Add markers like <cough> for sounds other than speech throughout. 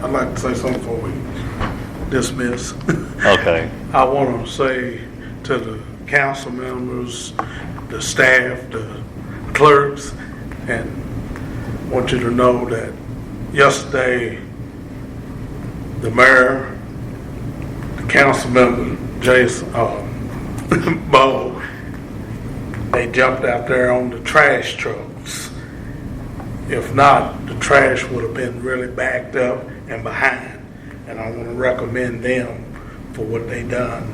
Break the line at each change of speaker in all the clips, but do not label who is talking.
I'd like to say something before we dismiss. <laughs>
Okay.
I want to say to the council members, the staff, the clerks, and want you to know that yesterday, the mayor, the council member, Jason, uh, <laughs> Bo, they jumped out there on the trash trucks. If not, the trash would have been really backed up and behind. And I want to recommend them for what they done.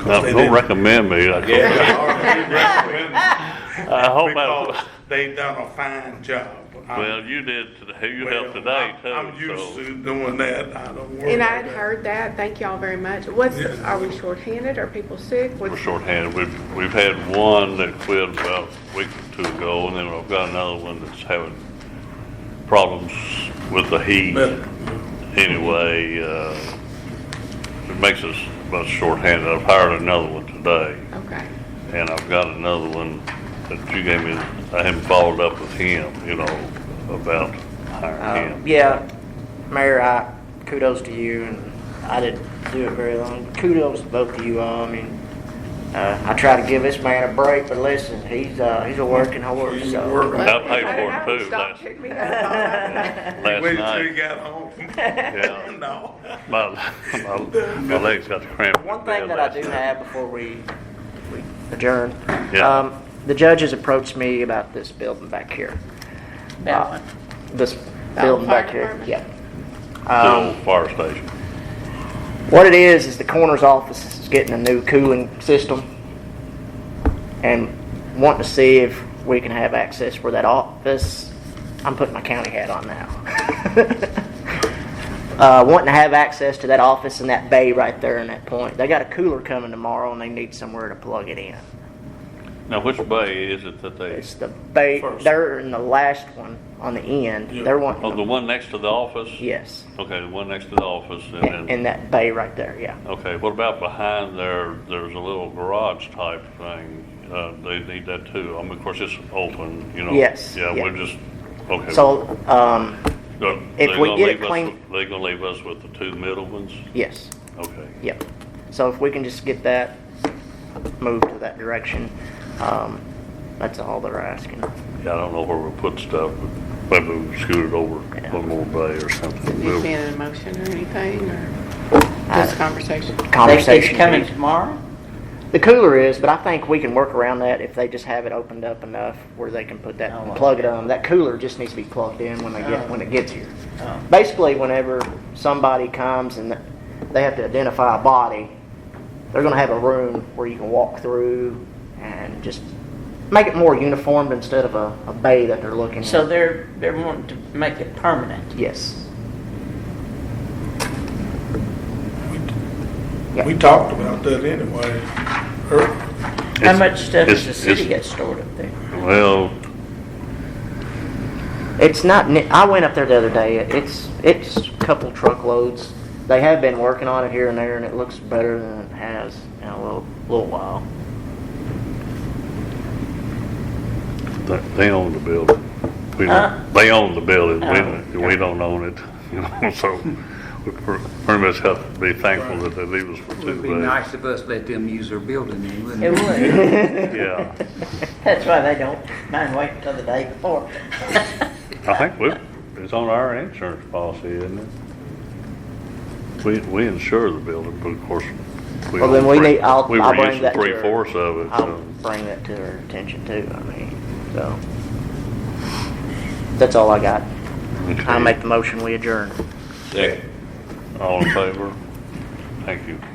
'Cause
Now,
they
Uh, Don't
didn't- <laughs>
recommend me. I
Yeah,
hope-
I
<laughs>
already recommend them <laughs>
I hope
Because
I,
they done a fine job. I'm-
well, you did, today. you
well,
helped today
I'm-
too.
I'm used
so-
to doing that. I don't worry.
And I
about
had
that.
heard that, thank y'all very much. What's,
Yeah.
are we shorthanded, are people sick?
We're
What's-
shorthanded. We've, we've had one that quit about a week or two ago, and then I've got another one that's having problems with the heat.
But-
Anyway, uh, it makes us about shorthanded. I've hired another one today,
Okay,
and I've got another one that you gave me. I haven't followed up with him, you know, about hiring
Um,
him.
Yeah, Mayor, I, kudos to you, and I didn't do it very long. Kudos to both of you all, I mean, uh, I try to give this man a break, but listen, he's, uh, he's a working horse,
He's
so.
working.
I paid for
I
it
don't
too
stop
last,
picking me up.
last
Wait till you
night.
got home. <laughs>
Yeah.
No.
My, my, my legs got cramped.
One thing that I do have before we we adjourn.
Yeah.
um, The judges approached me about this building back here.
That
Uh,
one.
This
That
building
fire
back here,
department?
yeah.
The
Um,
old fire station.
What it is is the coroner's office is getting a new cooling system and wanting to see if we can have access for that office. I'm putting my county hat on now. <laughs> uh, wanting to have access to that office and that bay right there in that point. They got a cooler coming tomorrow and they need somewhere to plug it in.
Now, which bay is it that they,
It's the bay,
First.
they're in the last one on the end.
Yeah.
They're wanting,
oh, the one next to the office?
yes,
Okay, the one next to the office, and
in
then,
that bay right there, yeah.
okay, what about behind there, there's a little garage type thing? Uh, they need that too. I mean, of course, it's open, you know?
Yes,
Yeah,
yeah.
we're just, okay.
So, um,
They're-
if
they're
we
gonna
get it
leave us
clean-
with- They gonna leave us with the two middle ones?
yes.
Okay.
Yep. So if we can just get that moved to that direction, um, that's all they're asking.
Yeah, I don't know where we put stuff, but maybe we scoot it over
Yeah.
one more bay or something.
Has this been an emotion or anything, or just conversation?
They- It's
Conversation.
coming tomorrow?
The cooler is, but I think we can work around that if they just have it opened up enough where they can put that,
Oh,
plug it on. That cooler just needs to be plugged in when they get, when it gets here.
Oh.
Basically, whenever somebody comes and they have to identify a body, they're gonna have a room where you can walk through and just make it more uniformed instead of a, a bay that they're looking at.
So they're, they're wanting to make it permanent.
Yes.
We talked about that anyway. Er-
How much stuff does the
It's-
city
it's-
get stored up there?
Well,
It's not, ni- I went up there the other day, it's, it's a couple truckloads. They have been working on it here and there, and it looks better than it has in a little, little while.
They they own the building. We
Huh?
don't, they own the building. We,
Oh.
we don't own it, <laughs> you know, so we per- pretty much have to be thankful that they leave us for
It would
two
be
days.
nice if us let them use their building, then, wouldn't
It
it?
would.
Yeah.
That's why they don't mind waiting till the day before. <laughs>
I think we, it's on our insurance policy, isn't it? We, we insure the building, but of course.
Well, then
own
we
three-
need, I'll,
We
I'll
were
bring
using
that to her.
three fourths of it,
I'll
so.
bring that to her attention too, I mean, so. That's all I got. I
okay.
make the motion, we adjourn.
All in favor? Thank you.